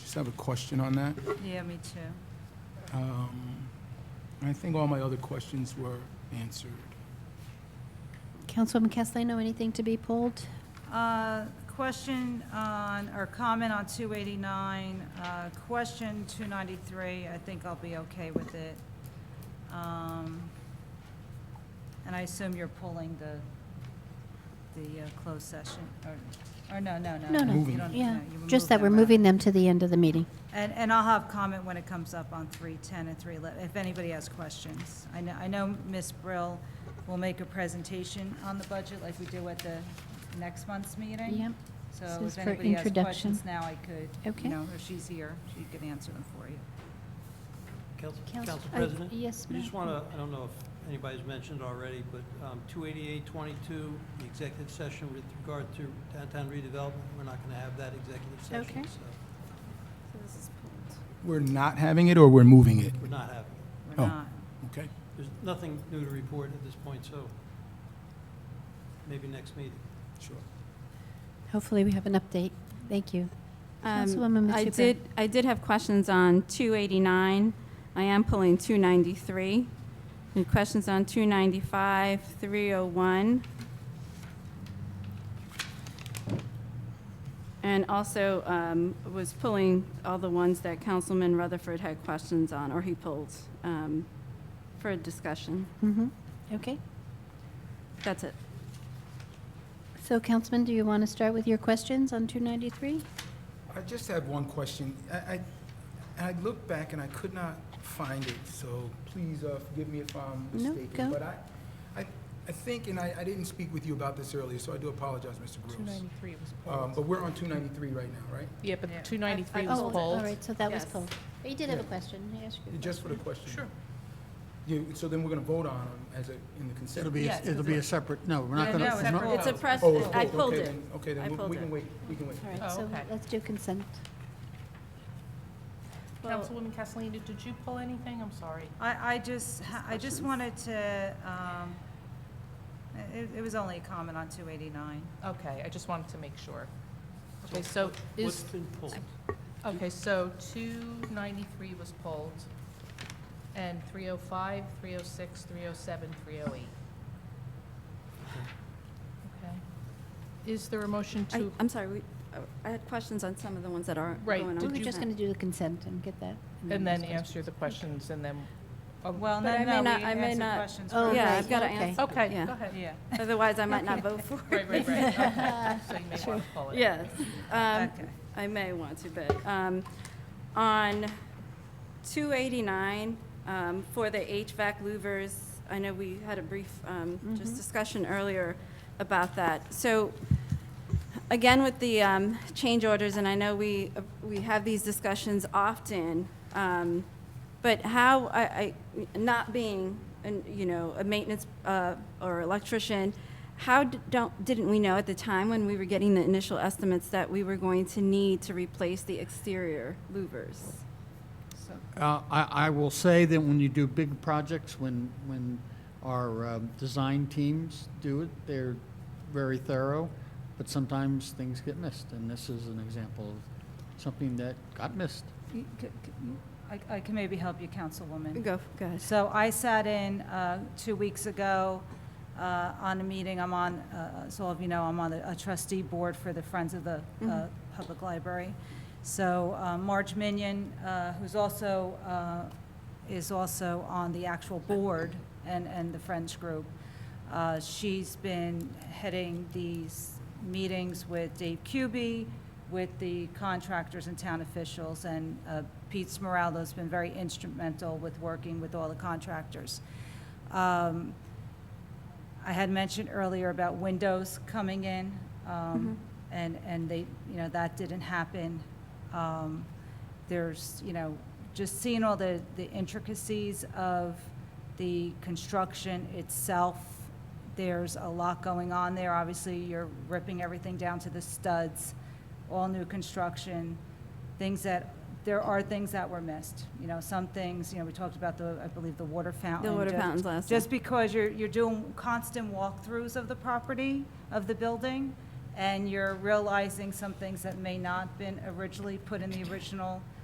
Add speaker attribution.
Speaker 1: Just have a question on that.
Speaker 2: Yeah, me too.
Speaker 1: Um, I think all my other questions were answered.
Speaker 3: Councilwoman Castellano, anything to be pulled?
Speaker 2: Uh, Question on, or comment on 289, uh, question 293, I think I'll be okay with it. Um, And I assume you're pulling the, the uh, closed session, or, or no, no, no.
Speaker 3: No,
Speaker 2: you
Speaker 3: no,
Speaker 4: Um,
Speaker 2: don't-
Speaker 3: yeah,
Speaker 2: no, you
Speaker 3: just that we're
Speaker 2: removed
Speaker 3: moving
Speaker 2: out.
Speaker 3: them to the end of the meeting.
Speaker 2: And, and I'll have comment when it comes up on 310 and 311, if anybody has questions. I know, I know Ms. Brill will make a presentation on the budget like we do at the next month's meeting.
Speaker 3: Yep. This
Speaker 2: So
Speaker 3: is
Speaker 2: if
Speaker 3: for
Speaker 2: anybody has
Speaker 3: introduction.
Speaker 2: questions now, I could,
Speaker 3: Okay.
Speaker 2: you know, if she's here, she could answer them for you.
Speaker 5: Council,
Speaker 3: Council-
Speaker 5: Council
Speaker 3: uh,
Speaker 5: President?
Speaker 3: yes,
Speaker 5: I
Speaker 3: ma'am.
Speaker 5: just want to, I don't know if anybody's mentioned already, but um, 288-22, the executive session with regard to downtown redevelopment, we're not going to have that executive
Speaker 3: Okay.
Speaker 5: session, so
Speaker 1: We're not having it or we're moving it?
Speaker 5: we're not having it.
Speaker 2: We're
Speaker 1: Oh.
Speaker 2: not,
Speaker 1: Okay.
Speaker 5: There's nothing new to report at this point, so maybe next meeting.
Speaker 1: Sure.
Speaker 3: Hopefully, we have an update. Thank you.
Speaker 6: Um,
Speaker 3: Councilwoman
Speaker 6: I
Speaker 3: Matsuka.
Speaker 6: did, I did have questions on 289. I am pulling 293. And questions on 295, 301. And also um, was pulling all the ones that Councilman Rutherford had questions on, or he pulled um, for discussion.
Speaker 3: Mhm. Okay.
Speaker 6: That's it.
Speaker 3: So Councilman, do you want to start with your questions on 293?
Speaker 1: I just have one question. I, I, I looked back and I could not find it, so please uh, forgive me if I'm
Speaker 3: No,
Speaker 1: mistaken.
Speaker 3: go.
Speaker 1: But I, I, I think, and I, I didn't speak with you about this earlier, so I do apologize, Mr. Gross.
Speaker 4: 293 was
Speaker 1: Um,
Speaker 4: pulled.
Speaker 1: but we're on 293 right now, right?
Speaker 4: Yeah, but
Speaker 2: Yeah. I-
Speaker 4: 293
Speaker 6: I-
Speaker 4: was
Speaker 3: Oh,
Speaker 4: pulled.
Speaker 3: all right, so that was
Speaker 6: Yes.
Speaker 3: pulled. But you did have a
Speaker 1: Yeah.
Speaker 3: question. May I ask you a
Speaker 1: Just for the
Speaker 3: question?
Speaker 1: question. You, so then we're going to vote on them as a, in the consent.
Speaker 7: It'll be,
Speaker 2: Yes,
Speaker 7: it'll be a separate, no, we're not
Speaker 2: Yeah,
Speaker 7: going
Speaker 2: no, it's
Speaker 7: to.
Speaker 2: separate.
Speaker 6: It's a
Speaker 2: Oh.
Speaker 6: press,
Speaker 1: Oh, it's
Speaker 6: I
Speaker 1: pulled.
Speaker 6: pulled
Speaker 1: Okay,
Speaker 6: it.
Speaker 1: then- Okay,
Speaker 6: I
Speaker 1: then we-
Speaker 6: pulled
Speaker 1: we can
Speaker 6: it.
Speaker 1: wait, we can wait.
Speaker 3: All
Speaker 4: Oh,
Speaker 3: right, so
Speaker 4: okay.
Speaker 3: let's do consent.
Speaker 6: Well-
Speaker 4: Councilwoman Castellino, did you pull anything? I'm sorry.
Speaker 2: I, I just, ha- I just wanted
Speaker 6: Questions?
Speaker 2: to, um, it, it was only a comment on 289.
Speaker 4: Okay, I just wanted to make sure. Okay, so
Speaker 5: What's
Speaker 4: is,
Speaker 5: been pulled?
Speaker 4: okay, so 293 was pulled, and 305, 306, 307, 308. Okay. Is there a motion
Speaker 6: I-
Speaker 4: to,
Speaker 6: I'm sorry, we- I had questions on some of the ones that aren't
Speaker 4: Right,
Speaker 6: going on.
Speaker 3: We
Speaker 4: Did
Speaker 3: were
Speaker 4: you-
Speaker 3: just going to do the consent and get that.
Speaker 4: and then
Speaker 3: discuss.
Speaker 4: answer the questions, and then, oh,
Speaker 2: Well,
Speaker 6: But
Speaker 2: no,
Speaker 6: I may
Speaker 2: no, we
Speaker 6: not- I may
Speaker 2: answered
Speaker 6: not-
Speaker 2: questions.
Speaker 3: Oh,
Speaker 2: first.
Speaker 6: Yeah, I've
Speaker 3: right,
Speaker 6: got to
Speaker 3: okay.
Speaker 6: answer.
Speaker 4: okay,
Speaker 6: Yeah.
Speaker 4: go ahead.
Speaker 2: Yeah.
Speaker 6: Otherwise, I might not vote for it.
Speaker 4: Right, right, right, okay. So you may want to pull it.
Speaker 6: Yes. Um,
Speaker 2: Okay.
Speaker 6: I may want to, but um, on 289, um, for the HVAC louvers, I know we had a brief um,
Speaker 3: Mm-hmm.
Speaker 6: just discussion earlier about that. So again, with the um, change orders, and I know we, we have these discussions often, um, but how, I, I- not being, an- you know, a maintenance uh, or electrician, how d- don't, didn't we know at the time when we were getting the initial estimates that we were going to need to replace the exterior louvers?
Speaker 4: So-
Speaker 7: Uh, I, I will say that when you do big projects, when, when our um, design teams do it, they're very thorough, but sometimes things get missed, and this is an example of something that got missed.
Speaker 2: You- c- c- you- I I can maybe help you, Councilwoman.
Speaker 6: Go, go ahead.
Speaker 2: So I sat in uh, two weeks ago uh, on a meeting, I'm on, uh, so all of you know, I'm on a trustee board for the Friends of the uh, Public Library. So uh, Marge Minion, uh, who's also, uh, is also on the actual board and, and the Friends group, uh, she's been heading these meetings with Dave Cubey, with the contractors and town officials, and uh, Pete Smeraldo's been very instrumental with working with all the contractors. Um, I had mentioned earlier about windows coming in,
Speaker 6: Mm-hmm.
Speaker 2: um, and, and they, you know, that didn't happen. Um, There's, you know, just seeing all the, the intricacies of the construction itself, there's a lot going on there. Obviously, you're ripping everything down to the studs, all new construction, things that, there are things that were missed. You know, some things, you know, we talked about the, I believe, the water fountain.
Speaker 6: water
Speaker 2: just-
Speaker 6: fountains last
Speaker 2: Just because you're, you're doing constant walkthroughs of the property, of the building, and you're realizing some things that may not been originally put in the original